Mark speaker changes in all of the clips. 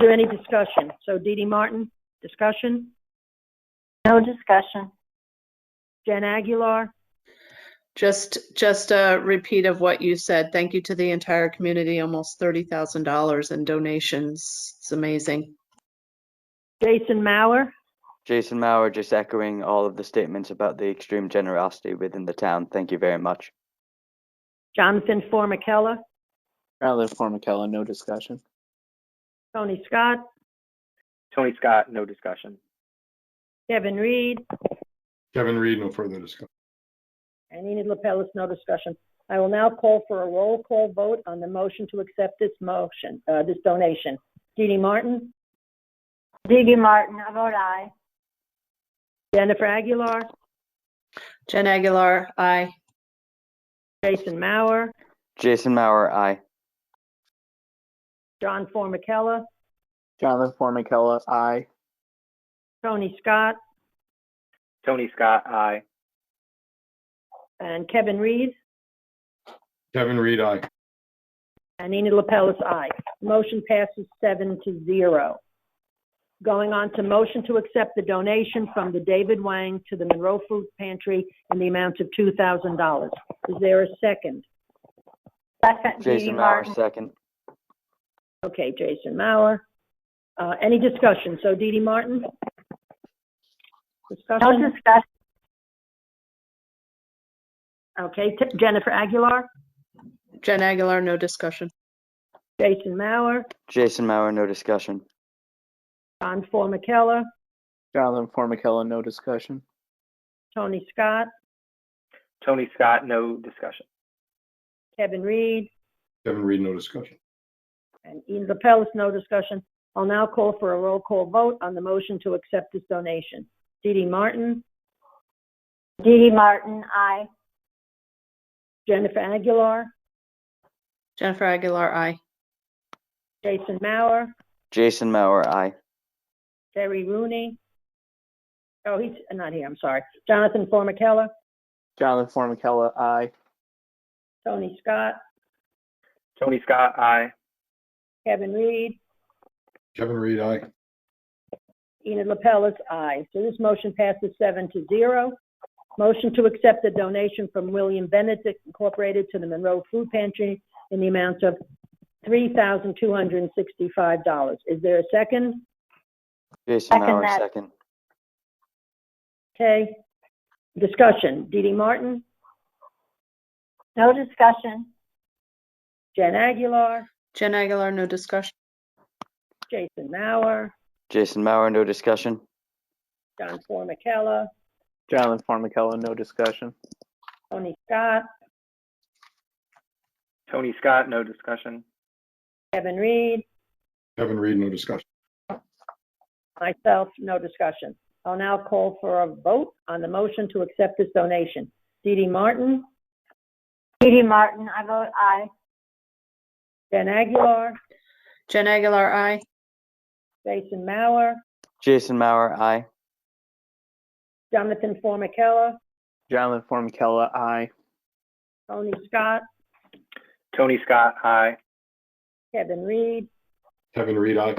Speaker 1: there any discussion? So Dee Dee Martin, discussion?
Speaker 2: No discussion.
Speaker 1: Jen Aguilar?
Speaker 3: Just, just a repeat of what you said. Thank you to the entire community, almost thirty thousand dollars in donations. It's amazing.
Speaker 1: Jason Mauer?
Speaker 4: Jason Maurer, just echoing all of the statements about the extreme generosity within the town. Thank you very much.
Speaker 1: Jonathan Formicella?
Speaker 5: Rather Formicella, no discussion.
Speaker 1: Tony Scott?
Speaker 6: Tony Scott, no discussion.
Speaker 1: Kevin Reed?
Speaker 7: Kevin Reed, no further discussion.
Speaker 1: And Enid Lapellis, no discussion. I will now call for a roll call vote on the motion to accept this motion, uh, this donation. Dee Dee Martin?
Speaker 2: Digi Martin, I vote aye.
Speaker 1: Jennifer Aguilar?
Speaker 3: Jen Aguilar, aye.
Speaker 1: Jason Mauer?
Speaker 4: Jason Maurer, aye.
Speaker 1: John Formicella?
Speaker 5: Jonathan Formicella, aye.
Speaker 1: Tony Scott?
Speaker 6: Tony Scott, aye.
Speaker 1: And Kevin Reed?
Speaker 7: Kevin Reed, aye.
Speaker 1: And Enid Lapellis, aye. Motion passes seven to zero. Going on to motion to accept the donation from the David Wang to the Monroe Food Pantry in the amount of two thousand dollars. Is there a second?
Speaker 2: Second, Digi
Speaker 4: Jason Maurer,
Speaker 2: Martin.
Speaker 4: second.
Speaker 1: Okay, Jason Mauer. Uh, any discussion? So Dee Dee Martin?
Speaker 2: No
Speaker 1: Discussion?
Speaker 2: discussion.
Speaker 1: Okay, T- Jennifer Aguilar,
Speaker 3: Jen Aguilar, no discussion.
Speaker 1: Jason Mauer,
Speaker 4: Jason Maurer, no discussion.
Speaker 1: John Formicella,
Speaker 5: Jonathan Formicella, no discussion.
Speaker 1: Tony Scott,
Speaker 6: Tony Scott, no discussion.
Speaker 1: Kevin Reed,
Speaker 7: Kevin Reed, no discussion.
Speaker 1: And Ian Lapellis, no discussion. I'll now call for a roll call vote on the motion to accept this donation. Dee Dee Martin,
Speaker 2: Digi Martin, aye.
Speaker 1: Jennifer Aguilar,
Speaker 3: Jennifer Aguilar, aye.
Speaker 1: Jason Mauer,
Speaker 4: Jason Maurer, aye.
Speaker 1: Terry Rooney. Oh, he's not here, I'm sorry. Jonathan Formicella,
Speaker 5: Jonathan Formicella, aye.
Speaker 1: Tony Scott,
Speaker 6: Tony Scott, aye.
Speaker 1: Kevin Reed,
Speaker 7: Kevin Reed, aye.
Speaker 1: Enid Lapellis, aye. So this motion passes seven to zero. Motion to accept the donation from William Benedict Incorporated to the Monroe Food Pantry in the amount of $3,265. Is there a second?
Speaker 4: Jason
Speaker 2: Second
Speaker 4: Maurer,
Speaker 2: that.
Speaker 4: second.
Speaker 1: Okay. Discussion. Dee Dee Martin,
Speaker 2: No discussion.
Speaker 1: Jen Aguilar,
Speaker 3: Jen Aguilar, no discussion.
Speaker 1: Jason Mauer,
Speaker 4: Jason Maurer, no discussion.
Speaker 1: John Formicella,
Speaker 5: Jonathan Formicella, no discussion.
Speaker 1: Tony Scott,
Speaker 6: Tony Scott, no discussion.
Speaker 1: Kevin Reed,
Speaker 7: Kevin Reed, no discussion.
Speaker 1: myself, no discussion. I'll now call for a vote on the motion to accept this donation. Dee Dee Martin,
Speaker 2: Digi Martin, I vote aye.
Speaker 1: Jen Aguilar,
Speaker 3: Jen Aguilar, aye.
Speaker 1: Jason Mauer,
Speaker 4: Jason Maurer, aye.
Speaker 1: Jonathan Formicella,
Speaker 5: Jonathan Formicella, aye.
Speaker 1: Tony Scott,
Speaker 6: Tony Scott, aye.
Speaker 1: Kevin Reed,
Speaker 7: Kevin Reed, aye.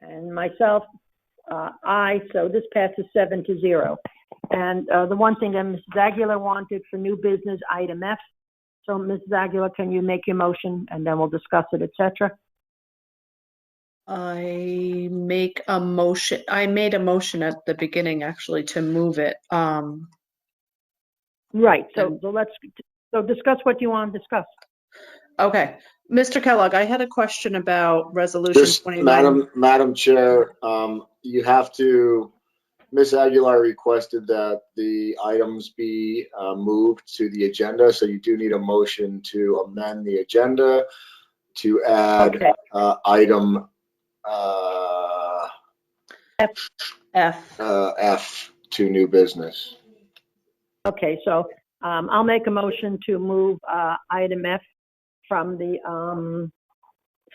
Speaker 1: and myself, uh, aye, so this passes seven to zero. And uh, the one thing that Mrs. Aguilar wanted for new business, item F. So Mrs. Aguilar, can you make your motion, and then we'll discuss it, et cetera?
Speaker 3: I make a motion, I made a motion at the beginning actually to move it. Um,
Speaker 1: Right, so
Speaker 3: Um,
Speaker 1: so let's, so discuss what you want to discuss.
Speaker 3: okay. Mr. Kellogg, I had a question about resolution
Speaker 8: Just,
Speaker 3: twenty-nine.
Speaker 8: Madam, Madam Chair, um, you have to, Ms. Aguilar requested that the items be, uh, moved to the agenda, so you do need a motion to amend the agenda to add,
Speaker 1: Okay,
Speaker 8: uh, item, uh,
Speaker 3: F.
Speaker 8: uh, F to new business.
Speaker 1: okay, so um, I'll make a motion to move uh, item F from the, um,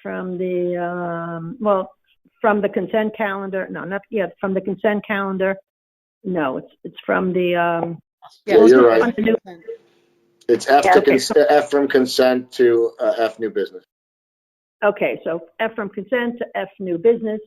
Speaker 1: from the, um, well, from the consent calendar, no, not, yeah, from the consent calendar. No, it's, it's from the, um,
Speaker 8: Yeah, you're right.
Speaker 1: on the new-
Speaker 8: It's F
Speaker 1: Yeah,
Speaker 8: to,
Speaker 1: okay,
Speaker 8: cons- F from consent to, uh, F new business.
Speaker 1: Okay, so F from consent to F new business.